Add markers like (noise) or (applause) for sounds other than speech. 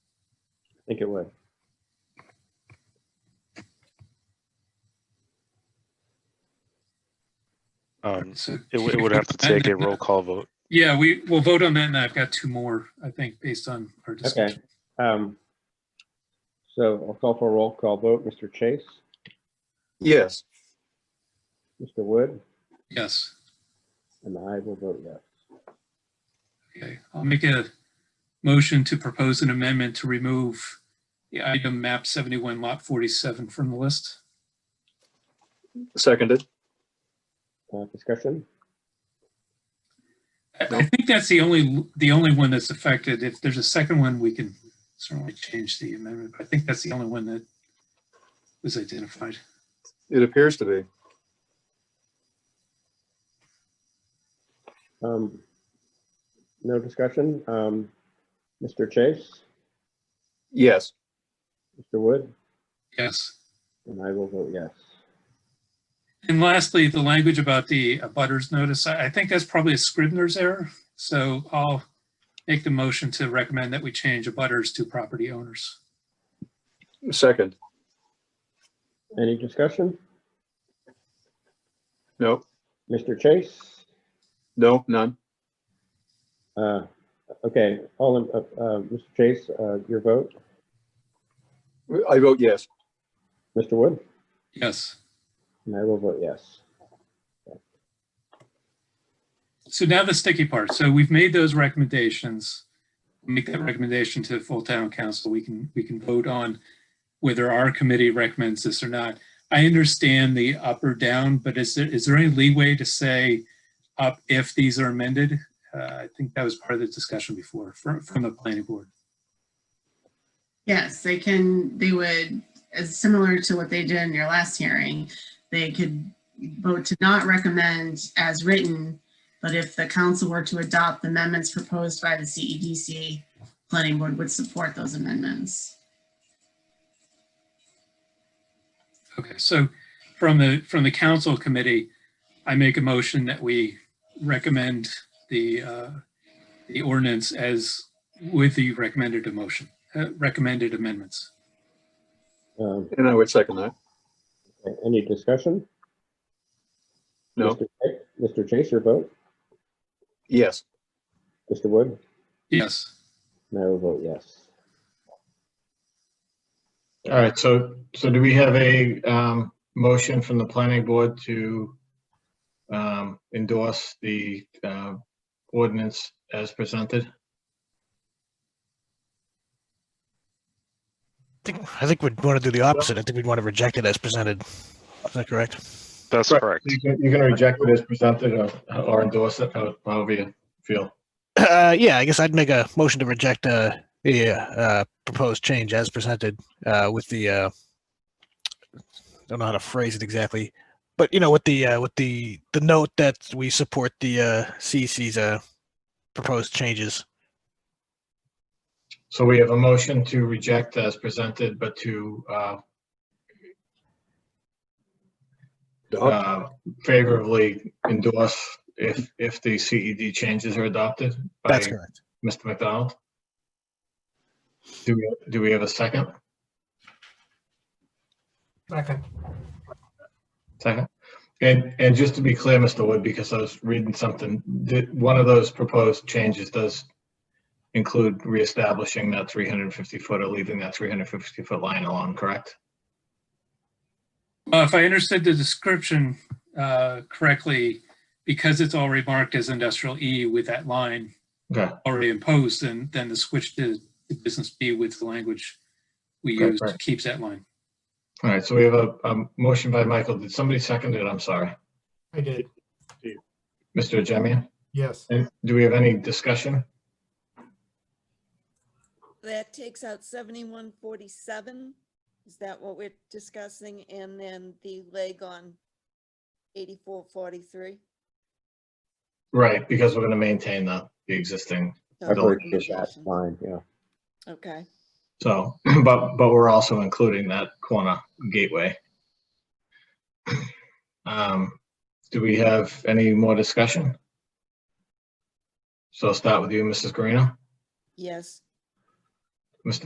think it would. (laughs) Um, So- it, w- it would have to take a roll call vote. Yeah, we, we'll vote on that, and I've got two more, I think, based on our discussion. Um, So I'll call for a roll call vote. Mr. Chase, Yes. Mr. Wood, Yes, and I will vote yes. okay. I'll make a motion to propose an amendment to remove the item map 71 lot 47 from the list. Seconded. Uh, Discussion? I I think that's the only, the only one that's affected. If there's a second one, we can certainly change the amendment. but I think that's the only one that was identified. It appears to be. Um, No discussion? Um, Mr. Chase, Yes. Mr. Wood, Yes. and I will vote yes. And lastly, the language about the butters notice, I I think that's probably a Scribner's error. So I'll make the motion to recommend that we change butters to property owners. Second. Any discussion? No, Mr. Chase? no, none. Uh, Okay, all, in- uh, uh, Mr. Chase, uh, your vote? I vote yes. Mr. Wood? Yes. And I will vote yes. So now the sticky part. So we've made those recommendations. Make that recommendation to the full town council. We can, we can vote on whether our committee recommends this or not. I understand the up or down, but is there, is there any leeway to say up if these are amended? Uh, I think that was part of the discussion before from, from the planning board. Yes, they can, they would, as similar to what they did in your last hearing, they could vote to not recommend as written, but if the council were to adopt the amendments proposed by the CEDC, planning board would support those amendments. Okay, so from the, from the council committee, I make a motion that we recommend the, uh, the ordinance as with the recommended emotion, uh, recommended amendments. Um, And I would second that. Any discussion? No, Mr. Chase- Mr. Chase, your vote? yes. Mr. Wood? Yes, And I will vote yes. All right, so, so do we have a um, motion from the planning board to um, endorse the uh, ordinance as presented? I think, I think we'd want to do the opposite. I think we'd want to reject it as presented. Is that correct? That's Right. correct. You can, you can reject it as presented or, or endorse it, how- however you feel. Uh, yeah, I guess I'd make a motion to reject uh, the uh, proposed change as presented uh, with the uh, don't know how to phrase it exactly, but you know, with the uh, with the the note that we support the uh, CC's uh, proposed changes. So we have a motion to reject as presented, but to uh, Dog? uh, favorably endorse if, if the CED changes are adopted by That's correct. Mr. McDonald? Do we, do we have a second? Second. Second? And, and just to be clear, Mr. Wood, because I was reading something, that one of those proposed changes does include reestablishing that 350 foot or leaving that 350 foot line alone, correct? Uh, if I understood the description uh, correctly, because it's already marked as industrial E with that line Okay, already imposed, then, then the switch to to business B with the language we Okay, use right. keeps that line. all right, so we have a, a motion by Michael. Did somebody second it? I'm sorry. I did. Mr. Jemian? Yes. And do we have any discussion? That takes out seventy-one forty-seven. Is that what we're discussing? And then the leg on eighty-four forty-three? Right, because we're going to maintain the, the existing I've heard that, that's fine, yeah. Okay, So, (clears throat) but, but we're also including that corner gateway. (clears throat) Um, do we have any more discussion? So I'll start with you, Mrs. Garino. yes,